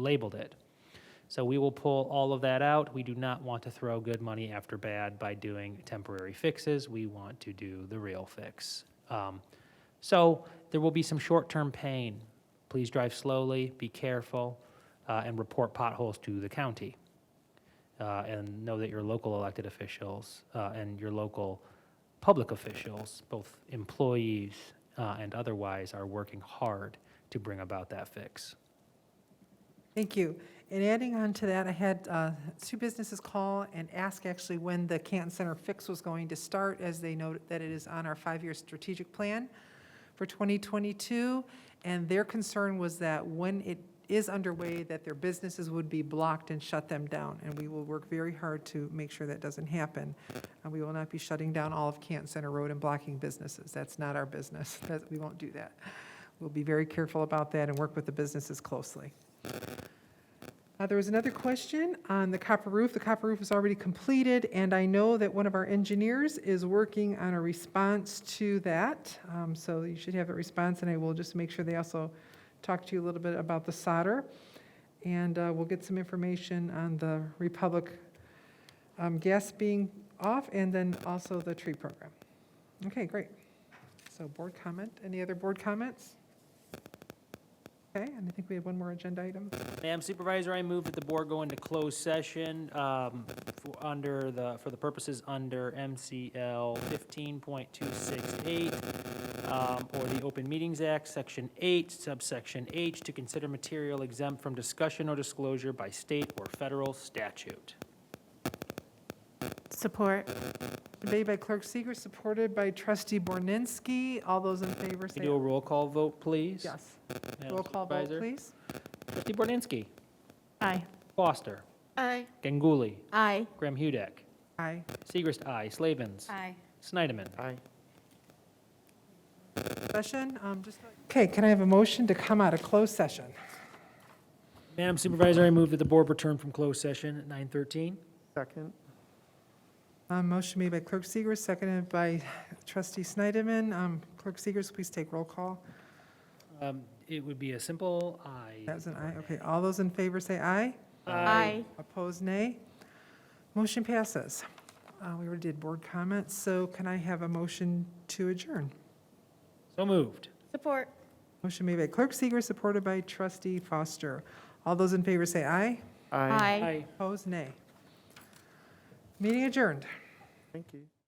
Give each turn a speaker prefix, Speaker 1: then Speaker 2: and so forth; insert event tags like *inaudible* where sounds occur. Speaker 1: labeled it. So we will pull all of that out. We do not want to throw good money after bad by doing temporary fixes. We want to do the real fix. Um, So there will be some short-term pain. Please drive slowly, be careful, uh, and report potholes to the county. Uh, And know that your local elected officials uh, and your local public officials, both employees uh, and otherwise, are working hard to bring about that fix.
Speaker 2: Thank you. And adding on to that, I had uh, two businesses call and ask actually when the Canton Center fix was going to start, as they note that it is on our five-year strategic plan for 2022. And their concern was that when it is underway, that their businesses would be blocked and shut them down. And we will work very hard to make sure that doesn't happen. And we will not be shutting down all of Canton Center Road and blocking businesses. That's not our business. *laughs* That- We won't do that. We'll be very careful about that and work with the businesses closely. Uh, There was another question on the copper roof. The copper roof is already completed, and I know that one of our engineers is working on a response to that. Um, So you should have a response, and I will just make sure they also talk to you a little bit about the solder. And uh, we'll get some information on the Republic um, gas being off, and then also the tree program. Okay, great. So board comment, any other board comments? Okay, and I think we have one more agenda item.
Speaker 1: Madam Supervisor, I move that the board go into closed session um, for, under the, for the purposes under MCL 15.268, um, or the Open Meetings Act, Section 8, subsection H, to consider material exempt from discussion or disclosure by state or federal statute.
Speaker 3: Support.
Speaker 2: Made by Clerk Seeger, supported by Trustee Borninski. All those in favor
Speaker 1: Can
Speaker 2: say
Speaker 1: you do a roll call vote, please?
Speaker 2: yes.
Speaker 1: Madam
Speaker 2: Roll call vote,
Speaker 1: Supervisor?
Speaker 2: please.
Speaker 1: Trustee Borninski,
Speaker 3: Aye.
Speaker 1: Foster,
Speaker 3: Aye.
Speaker 1: Ganguly,
Speaker 3: Aye.
Speaker 1: Graham Hudek,
Speaker 2: Aye.
Speaker 1: Segrist, I, Slavens,
Speaker 3: Aye.
Speaker 1: Snyderman.
Speaker 2: Session, um, just. Okay, can I have a motion to come out of closed session?
Speaker 1: Madam Supervisor, I move that the board return from closed session at 9:13.
Speaker 4: Second.
Speaker 2: Um, motion made by Clerk Seeger, seconded by Trustee Snyderman. Um, Clerk Seeger, please take roll call.
Speaker 1: Um, It would be a simple
Speaker 2: That
Speaker 1: aye.
Speaker 2: was an aye. Okay, all those in favor say aye.
Speaker 3: Aye.
Speaker 2: Opposed, nay. Motion passes. Uh, we already did board comments, so can I have a motion to adjourn?
Speaker 1: So moved.
Speaker 3: Support.
Speaker 2: Motion made by Clerk Seeger, supported by Trustee Foster. All those in favor say aye.
Speaker 4: Aye.
Speaker 3: Aye.
Speaker 2: Opposed, nay. Meeting adjourned.
Speaker 4: Thank you.